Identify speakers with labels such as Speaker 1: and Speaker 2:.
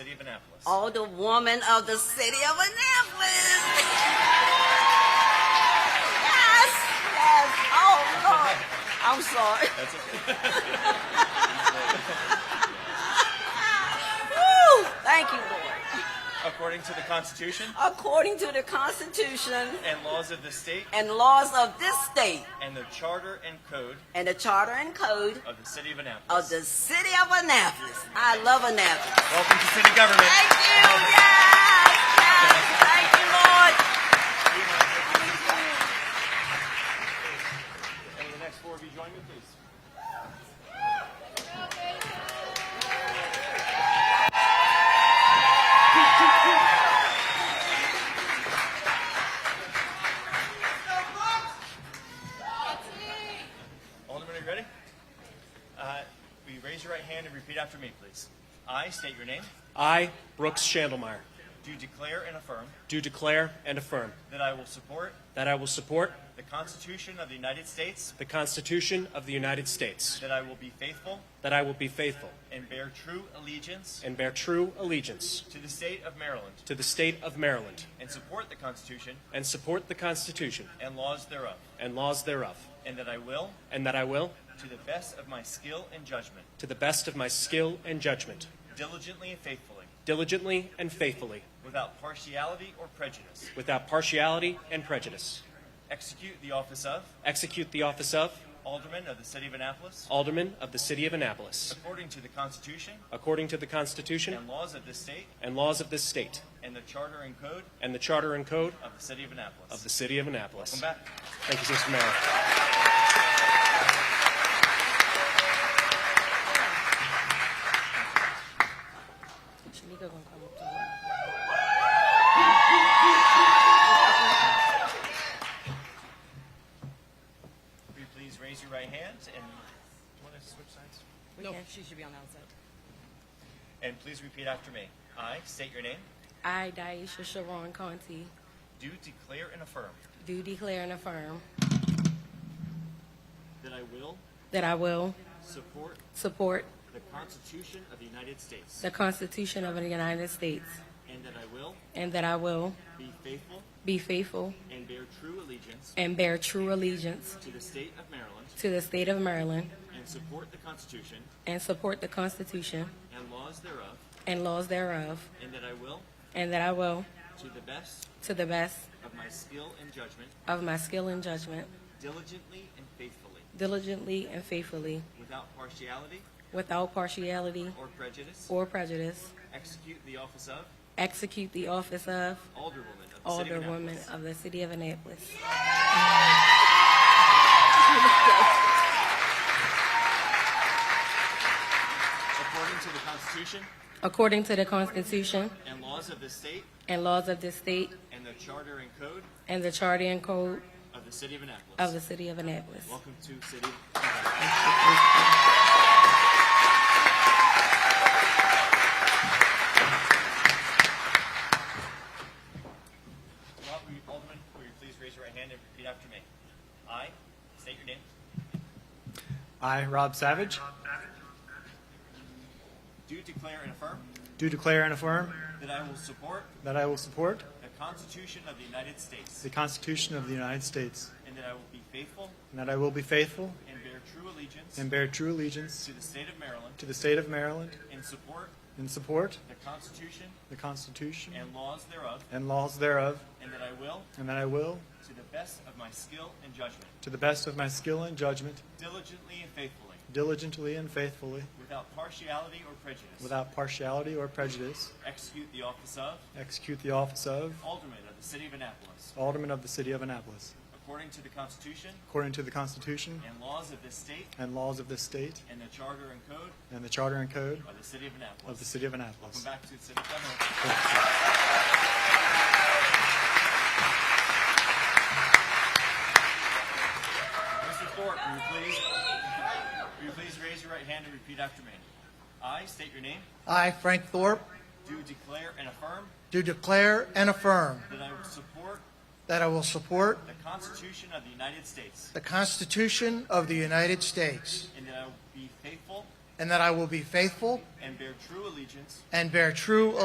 Speaker 1: city of Annapolis.
Speaker 2: Oh, the woman of the city of Annapolis. yes, yes. Oh, Lord. I'm sorry.
Speaker 1: That's okay.
Speaker 2: Woo. Thank you, Lord.
Speaker 1: According to the Constitution
Speaker 2: According to the Constitution
Speaker 1: and laws of the state
Speaker 2: and laws of this state
Speaker 1: and the charter and code
Speaker 2: and the charter and code
Speaker 1: of the city of Annapolis.
Speaker 2: of the city of Annapolis. I love Annapolis.
Speaker 1: Welcome to city government.
Speaker 2: Thank you. Yes. Yes. Thank you, Lord.
Speaker 1: And the next four of you join me, please. Alderman, are you ready? Uh, Will you raise your right hand and repeat after me, please? I state your name.
Speaker 3: I, Brooks Chandelmeyer,
Speaker 1: Do declare and affirm
Speaker 3: do declare and affirm
Speaker 1: that I will support
Speaker 3: that I will support
Speaker 1: the Constitution of the United States,
Speaker 3: the Constitution of the United States,
Speaker 1: that I will be faithful
Speaker 3: that I will be faithful
Speaker 1: and bear true allegiance
Speaker 3: and bear true allegiance
Speaker 1: to the state of Maryland,
Speaker 3: to the state of Maryland,
Speaker 1: and support the Constitution
Speaker 3: and support the Constitution
Speaker 1: and laws thereof,
Speaker 3: and laws thereof,
Speaker 1: and that I will,
Speaker 3: and that I will,
Speaker 1: to the best of my skill and judgment,
Speaker 3: to the best of my skill and judgment,
Speaker 1: diligently and faithfully,
Speaker 3: diligently and faithfully,
Speaker 1: without partiality or prejudice,
Speaker 3: without partiality and prejudice,
Speaker 1: execute the office of
Speaker 3: execute the office of
Speaker 1: Alderman of the City of Annapolis
Speaker 3: Alderman of the City of Annapolis,
Speaker 1: according to the Constitution
Speaker 3: according to the Constitution
Speaker 1: and laws of this state
Speaker 3: and laws of this state,
Speaker 1: and the Charter and Code
Speaker 3: and the Charter and Code
Speaker 1: of the City of Annapolis.
Speaker 3: of the City of Annapolis.
Speaker 1: Welcome back.
Speaker 3: Thank you, Mr. Mayor.
Speaker 2: Shanika gonna come up to her.
Speaker 1: Will you please raise your right hand and, do you want to switch sides?
Speaker 2: No, she should be on the outside.
Speaker 1: And please repeat after me. I state your name.
Speaker 4: I, Daisha Sharon Conti,
Speaker 1: Do declare and affirm
Speaker 4: do declare and affirm
Speaker 1: that I will
Speaker 4: that I will
Speaker 1: support
Speaker 4: support
Speaker 1: the Constitution of the United States
Speaker 4: the Constitution of the United States
Speaker 1: and that I will
Speaker 4: and that I will
Speaker 1: be faithful
Speaker 4: be faithful
Speaker 1: and bear true allegiance
Speaker 4: and bear true allegiance
Speaker 1: to the state of Maryland
Speaker 4: to the state of Maryland
Speaker 1: and support the Constitution
Speaker 4: and support the Constitution
Speaker 1: and laws thereof
Speaker 4: and laws thereof
Speaker 1: and that I will
Speaker 4: and that I will,
Speaker 1: to the best
Speaker 4: to the best
Speaker 1: of my skill and judgment
Speaker 4: of my skill and judgment,
Speaker 1: diligently and faithfully
Speaker 4: diligently and faithfully,
Speaker 1: without partiality
Speaker 4: without partiality
Speaker 1: or prejudice
Speaker 4: or prejudice,
Speaker 1: execute the office of
Speaker 4: execute the office of
Speaker 1: Alderwoman of the City of
Speaker 4: Alderwoman
Speaker 1: Annapolis.
Speaker 4: of the City of Annapolis.
Speaker 1: according to the Constitution
Speaker 4: According to the Constitution
Speaker 1: and laws of the state
Speaker 4: and laws of this state
Speaker 1: and the Charter and Code
Speaker 4: and the Charter and Code
Speaker 1: of the City of Annapolis.
Speaker 4: of the City of Annapolis.
Speaker 1: Welcome to City. of Annapolis. Rob, will you- Alderman, will you please raise your right hand and repeat after me? I state your name.
Speaker 5: I, Rob Savage,
Speaker 1: Do declare and affirm
Speaker 5: do declare and affirm
Speaker 1: that I will support
Speaker 5: that I will support
Speaker 1: the Constitution of the United States
Speaker 5: the Constitution of the United States,
Speaker 1: and that I will be faithful
Speaker 5: and that I will be faithful
Speaker 1: and bear true allegiance
Speaker 5: and bear true allegiance
Speaker 1: to the state of Maryland
Speaker 5: to the state of Maryland,
Speaker 1: and support
Speaker 5: and support
Speaker 1: the Constitution
Speaker 5: the Constitution
Speaker 1: and laws thereof,
Speaker 5: and laws thereof,
Speaker 1: and that I will,
Speaker 5: and that I will,
Speaker 1: to the best of my skill and judgment,
Speaker 5: to the best of my skill and judgment,
Speaker 1: diligently and faithfully,
Speaker 5: diligently and faithfully,
Speaker 1: without partiality or prejudice,
Speaker 5: without partiality or prejudice,
Speaker 1: execute the office of
Speaker 5: execute the office of
Speaker 1: Alderman of the City of Annapolis,
Speaker 5: Alderman of the City of Annapolis,
Speaker 1: according to the Constitution
Speaker 5: according to the Constitution
Speaker 1: and laws of this state
Speaker 5: and laws of this state,
Speaker 1: and the Charter and Code
Speaker 5: and the Charter and Code
Speaker 1: of the City of Annapolis.
Speaker 5: of the City of
Speaker 1: Welcome
Speaker 5: Annapolis.
Speaker 1: back to the City Government. Mr. Thorpe, will you please, will you please raise your right hand and repeat after me? I state your name,
Speaker 6: I, Frank Thorpe,
Speaker 1: do declare and affirm
Speaker 6: do declare and affirm
Speaker 1: that I will support
Speaker 6: that I will support
Speaker 1: the Constitution of the United States
Speaker 6: the Constitution of the United States
Speaker 1: and that I will be faithful
Speaker 6: and that I will be faithful
Speaker 1: and bear true allegiance
Speaker 6: and bear true